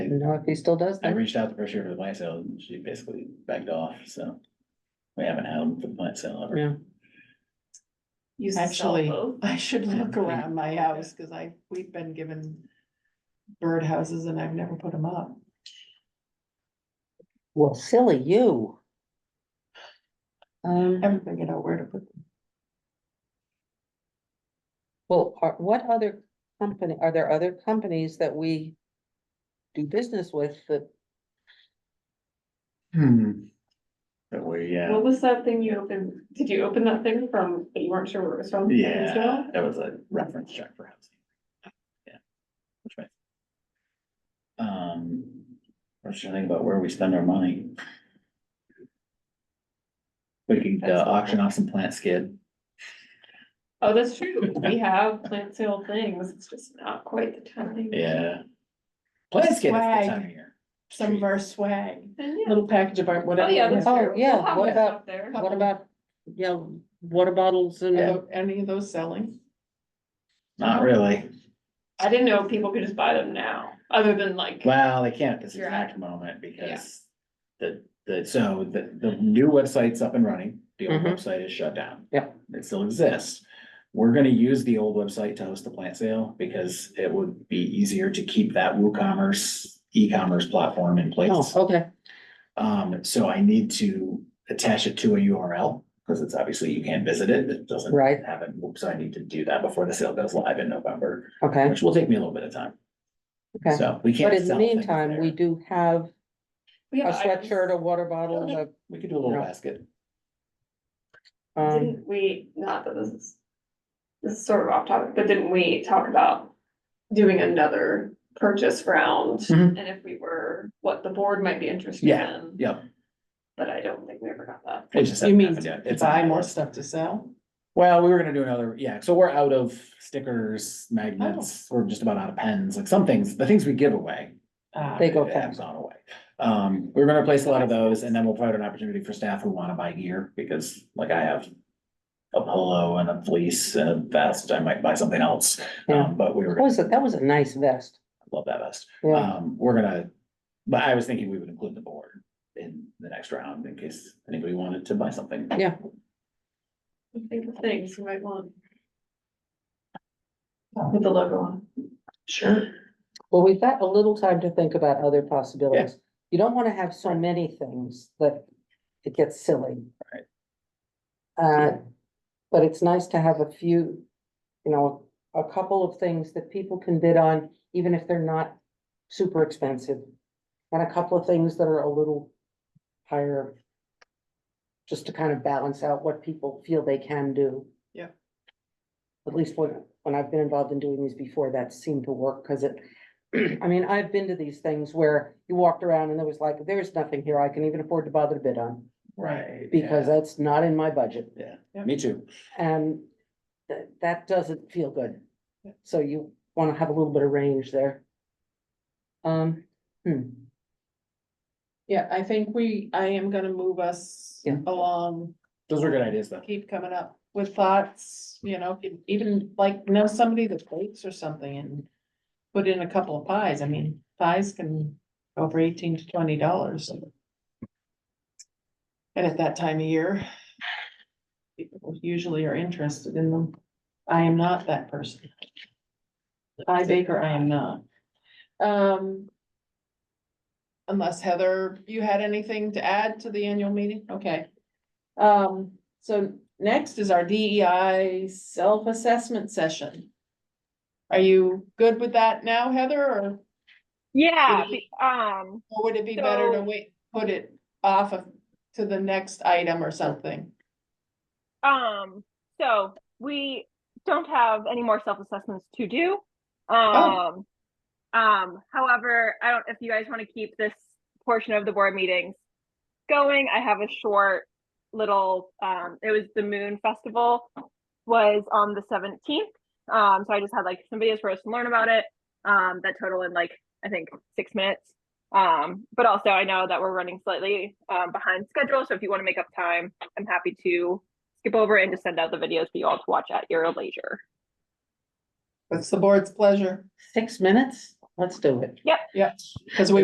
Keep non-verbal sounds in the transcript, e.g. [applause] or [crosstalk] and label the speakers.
Speaker 1: didn't know if he still does
Speaker 2: I
Speaker 1: that.
Speaker 2: reached out the first year for the plant sale, and she basically backed off, so. We haven't had them for the plant sale ever.
Speaker 1: Yeah,
Speaker 3: Used to sell
Speaker 4: Actually,
Speaker 3: both.
Speaker 4: I should
Speaker 3: [laughs]
Speaker 4: look around my house, cause I, we've been given birdhouses and I've never put them up.
Speaker 1: well, silly you. Um,
Speaker 4: Haven't figured out where to put them.
Speaker 1: well, are, what other company, are there other companies that we do business with that,
Speaker 2: Hmm. But we, yeah,
Speaker 3: What was that thing you opened? Did you open that thing from, but you weren't sure where it was from?
Speaker 2: yeah, that was a reference check for housing. Yeah. Which way? Um, what should I think about where we spend our money? We could uh, auction off some plant skid.
Speaker 3: Oh, that's true. We have plant sale things. It's just not quite the time.
Speaker 2: Yeah. Plant skid is the
Speaker 4: Swag.
Speaker 2: time of year.
Speaker 4: Some of our swag,
Speaker 3: Then, yeah.
Speaker 4: little package of art,
Speaker 3: Oh,
Speaker 4: whatever.
Speaker 3: yeah, that's
Speaker 4: it
Speaker 1: Oh,
Speaker 3: true.
Speaker 1: yeah,
Speaker 3: We'll have
Speaker 1: what
Speaker 3: that
Speaker 1: about-
Speaker 3: up there.
Speaker 1: what about, you know, water bottles
Speaker 4: is.
Speaker 1: and,
Speaker 4: Are Any of those selling?
Speaker 2: Not really.
Speaker 3: I didn't know if people could just buy them now, other than like,
Speaker 2: Well, they can't at this
Speaker 3: You're
Speaker 2: exact moment because the, the, so the, the new website's up and running. The old
Speaker 1: Mhm.
Speaker 2: website is shut down.
Speaker 1: Yep.
Speaker 2: It still exists. We're gonna use the old website to host the plant sale because it would be easier to keep that WooCommerce e-commerce platform in
Speaker 1: oh,
Speaker 2: place.
Speaker 1: okay,
Speaker 2: Um, so I need to attach it to a URL because it's obviously you can't visit it. It doesn't
Speaker 1: Right.
Speaker 2: have it. So I need to do that before the sale goes live in November,
Speaker 1: okay,
Speaker 2: which will take me a little bit of time.
Speaker 1: okay.
Speaker 2: So we can't.
Speaker 1: But in the
Speaker 2: sell things
Speaker 1: meantime, we
Speaker 2: there.
Speaker 1: do have
Speaker 3: we
Speaker 1: a
Speaker 3: have items.
Speaker 1: sweatshirt, a water bottle, and a,
Speaker 2: We could do a little
Speaker 1: Yeah.
Speaker 2: basket.
Speaker 1: um,
Speaker 3: Didn't we, not that this is, this is sort of off topic, but didn't we talk about doing another purchase round?
Speaker 2: Mhm.
Speaker 3: And if we were, what the board might be interested
Speaker 2: Yeah,
Speaker 3: in,
Speaker 2: Yep.
Speaker 3: but I don't think we ever got that.
Speaker 2: It's just.
Speaker 4: You mean
Speaker 2: yeah,
Speaker 4: to
Speaker 2: it's
Speaker 4: buy
Speaker 2: on
Speaker 4: more
Speaker 2: the-
Speaker 4: stuff to sell?
Speaker 2: Well, we were gonna do another, yeah, so we're out of stickers, magnets,
Speaker 4: Oh.
Speaker 2: we're just about out of pens, like some things, the things we give away.
Speaker 4: Ah,
Speaker 1: They go
Speaker 2: it
Speaker 1: fast.
Speaker 2: has gone away. Um, we're gonna replace a lot of those and then we'll provide an opportunity for staff who wanna buy gear, because like I have. A polo and a fleece and a vest, I might buy something else,
Speaker 1: Yeah.
Speaker 2: um, but we were,
Speaker 1: That was, a- that was a nice vest.
Speaker 2: love that vest.
Speaker 1: Yeah,
Speaker 2: Um, we're gonna, but I was thinking we would include the board in the next round in case anybody wanted to buy something.
Speaker 1: Yeah.
Speaker 3: Think of things you might want.
Speaker 4: With the logo on.
Speaker 2: Sure.
Speaker 1: well, we've got a little time to think about other possibilities. You don't wanna have so many things that it gets silly.
Speaker 2: Right.
Speaker 1: Uh, but it's nice to have a few, you know, a couple of things that people can bid on, even if they're not super expensive. And a couple of things that are a little higher. Just to kind of balance out what people feel they can do.
Speaker 4: Yeah.
Speaker 1: At least when, when I've been involved in doing these before, that seemed to work, cause it, I mean, I've been to these things where you walked around and there was like, there's nothing here I can even afford to bother to bid on.
Speaker 2: Right.
Speaker 1: Because that's not in my budget.
Speaker 2: yeah. Me too.
Speaker 1: And that, that doesn't feel good.
Speaker 4: Yeah.
Speaker 1: So you wanna have a little bit of range there. Um, hmm,
Speaker 4: Yeah, I think we, I am gonna move us
Speaker 1: Yeah.
Speaker 4: along
Speaker 2: Those were good ideas though.
Speaker 4: keep coming up with thoughts, you know, e- even like know somebody that bakes or something and. Put in a couple of pies, I mean, pies can go for eighteen to twenty dollars. And at that time of year. People usually are interested in them, I am not that person. Pie baker, I am not. Um. Unless Heather, you had anything to add to the annual meeting, okay. Um, so next is our DEI self-assessment session. Are you good with that now, Heather, or
Speaker 5: Yeah,
Speaker 4: Maybe-
Speaker 5: be- um,
Speaker 4: or would it be better to
Speaker 5: So-
Speaker 4: wait, put it off of, to the next item or something?
Speaker 5: um, so we don't have any more self-assessments to do.
Speaker 4: Oh.
Speaker 5: Um, um, however, I don't, if you guys want to keep this portion of the board meetings going, I have a short little, um, it was the Moon Festival was on the seventeenth. Um, so I just had like some videos for us to learn about it, um, that total in like, I think, six minutes. Um, but also I know that we're running slightly, um, behind schedule. So if you want to make up time, I'm happy to skip over and just send out the videos for you all to watch at your leisure.
Speaker 4: It's the board's pleasure,
Speaker 1: six minutes? Let's do it.
Speaker 4: because we